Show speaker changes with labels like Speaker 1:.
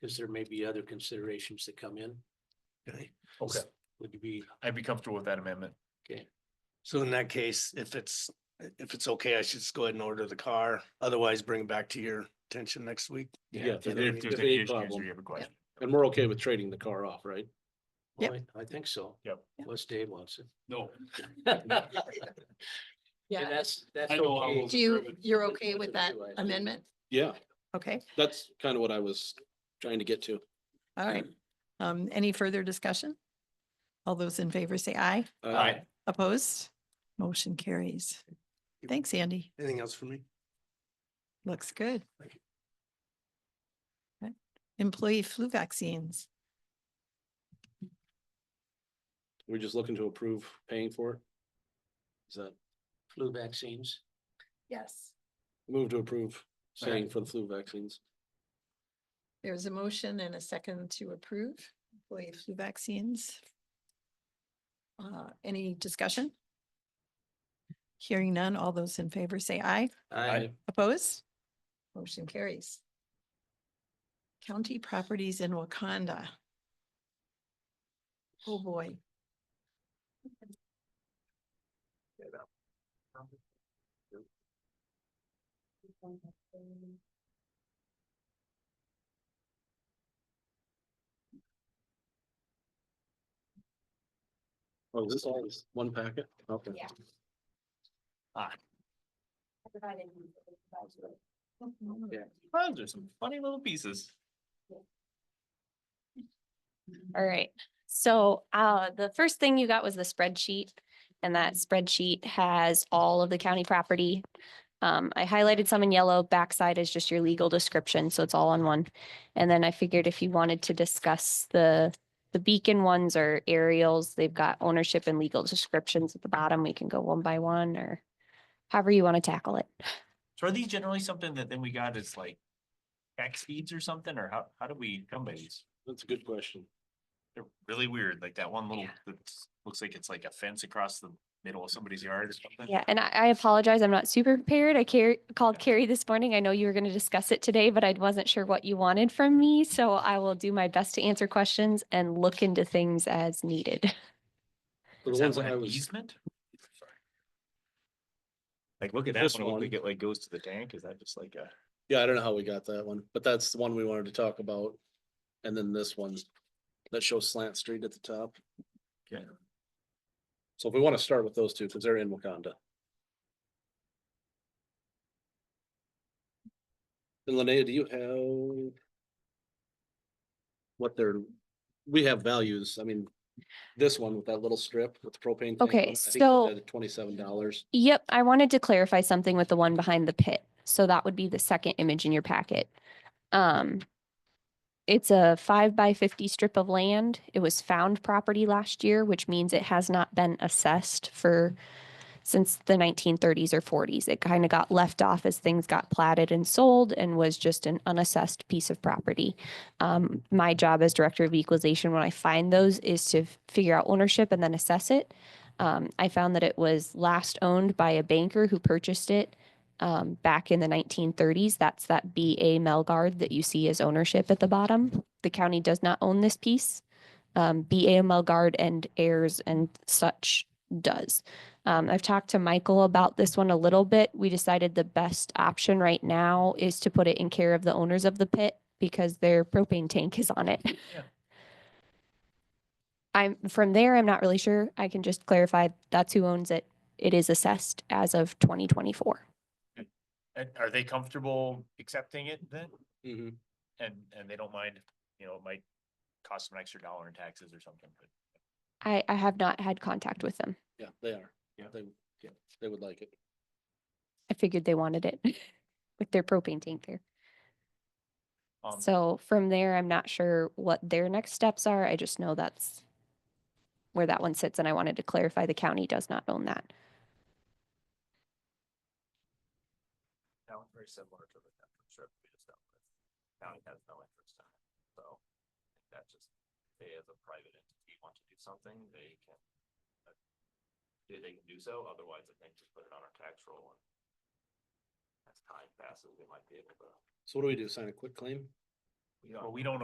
Speaker 1: because there may be other considerations that come in.
Speaker 2: Okay,
Speaker 3: Okay,
Speaker 1: Would you be,
Speaker 3: I'd be comfortable with that amendment.
Speaker 2: so in that case, if it's, if it's okay, I should just go ahead and order the car, otherwise bring it back to your attention next week.
Speaker 1: Yeah,
Speaker 3: If there's
Speaker 1: that'd
Speaker 3: if
Speaker 1: be
Speaker 3: there's
Speaker 1: the
Speaker 3: any
Speaker 1: big
Speaker 3: issues or
Speaker 1: problem.
Speaker 3: you have a question.
Speaker 4: And we're okay with trading the car off, right?
Speaker 1: Well, I I think so.
Speaker 3: Yep.
Speaker 1: Unless Dave wants it.
Speaker 4: No.
Speaker 1: And
Speaker 5: Yeah,
Speaker 1: that's, that's.
Speaker 4: I know I
Speaker 1: okay.
Speaker 4: will-
Speaker 5: do you,
Speaker 4: Chairman.
Speaker 5: you're okay with
Speaker 1: With
Speaker 5: that
Speaker 1: you, I think.
Speaker 5: amendment?
Speaker 4: Yeah,
Speaker 5: Okay,
Speaker 4: that's kind of what I was trying to get to.
Speaker 5: all right. Um, any further discussion? All those in favor say aye.
Speaker 4: Uh,
Speaker 3: Aye.
Speaker 5: Opposed? Motion carries. Thanks, Andy.
Speaker 2: Anything else for me?
Speaker 5: Looks good.
Speaker 2: Thank you.
Speaker 5: Okay. Employee flu vaccines.
Speaker 4: We're just looking to approve paying for it. Is that
Speaker 1: Flu vaccines.
Speaker 5: Yes.
Speaker 4: move to approve paying for the flu vaccines?
Speaker 5: There's a motion and a second to approve employee flu vaccines. Uh, any discussion? Hearing none, all those in favor say aye.
Speaker 1: I,
Speaker 5: Opposed? Motion carries. County properties in Wakanda. Oh, boy.
Speaker 4: Oh, is this all is one packet? Okay.
Speaker 6: Yeah.
Speaker 3: Ah.
Speaker 6: I provided you with the budget.
Speaker 3: Oh, There's some funny little pieces.
Speaker 6: All right, so uh, the first thing you got was the spreadsheet. And that spreadsheet has all of the county property. Um, I highlighted some in yellow, backside is just your legal description, so it's all on one. And then I figured if you wanted to discuss the, the beacon ones or aerials, they've got ownership and legal descriptions at the bottom. We can go one by one or however you want to tackle it.
Speaker 3: So are these generally something that then we got as like tax feeds or something, or how, how do we come by these?
Speaker 4: That's a good question.
Speaker 3: They're really weird, like that one little,
Speaker 6: Yeah.
Speaker 3: that looks like it's like a fence across the middle of somebody's yard or something.
Speaker 6: Yeah, and I, I apologize. I'm not super prepared. I care, called
Speaker 3: Yeah.
Speaker 6: Carrie this morning. I know you were going to discuss it today, but I wasn't sure what you wanted from me. So I will do my best to answer questions and look into things as needed.
Speaker 4: So
Speaker 3: Is that
Speaker 4: The ones
Speaker 3: one
Speaker 4: that I
Speaker 3: an
Speaker 4: was,
Speaker 3: easement? Like, look at that
Speaker 4: This
Speaker 3: one, it looks
Speaker 4: one.
Speaker 3: like it like goes to the tank, is that just like a?
Speaker 4: yeah, I don't know how we got that one, but that's the one we wanted to talk about. And then this one that shows slant street at the top.
Speaker 3: Okay.
Speaker 4: So if we want to start with those two, because they're in Wakanda. And Linnea, do you have? What they're, we have values, I mean, this one with that little strip with the propane. tank
Speaker 6: Okay,
Speaker 4: on it, I think it's
Speaker 6: so-
Speaker 4: at Twenty-seven dollars.
Speaker 6: Yep, I wanted to clarify something with the one behind the pit. So that would be the second image in your packet. Um, it's a five by fifty strip of land. It was found property last year, which means it has not been assessed for since the nineteen thirties or forties. It kind of got left off as things got platted and sold and was just an unassessed piece of property. Um, my job as director of equalization, when I find those, is to f- figure out ownership and then assess it. Um, I found that it was last owned by a banker who purchased it um, back in the 1930s. That's that B.A. Melgard that you see as ownership at the bottom. The county does not own this piece. Um, B.A. Melgard and heirs and such does. Um, I've talked to Michael about this one a little bit. We decided the best option right now is to put it in care of the owners of the pit because their propane tank is on it. I'm from there, I'm not really sure. I can just clarify that's who owns it. It is assessed as of twenty twenty-four.
Speaker 3: And are they comfortable accepting it then?
Speaker 4: Mm-hmm.
Speaker 3: And, and they don't mind, you know, it might cost them an extra dollar in taxes or something, but.
Speaker 6: I, I have not had contact with them.
Speaker 4: Yeah, they are.
Speaker 3: Yeah.
Speaker 4: They, yeah, they would like it.
Speaker 6: I figured they wanted it with their propane tank there.
Speaker 3: um,
Speaker 6: So from there, I'm not sure what their next steps are. I just know that's where that one sits and I wanted to clarify the county does not own that.
Speaker 3: That one's very similar to the Denver strip we just dealt with. County has no interest in it, so I think that's just, they as a private entity want to do something, they can. uh, They, they can do so, otherwise I think just put it on our tax roll and. As time passes, we might be able to.
Speaker 4: So what do we do? Sign a quick claim?
Speaker 3: Well, we don't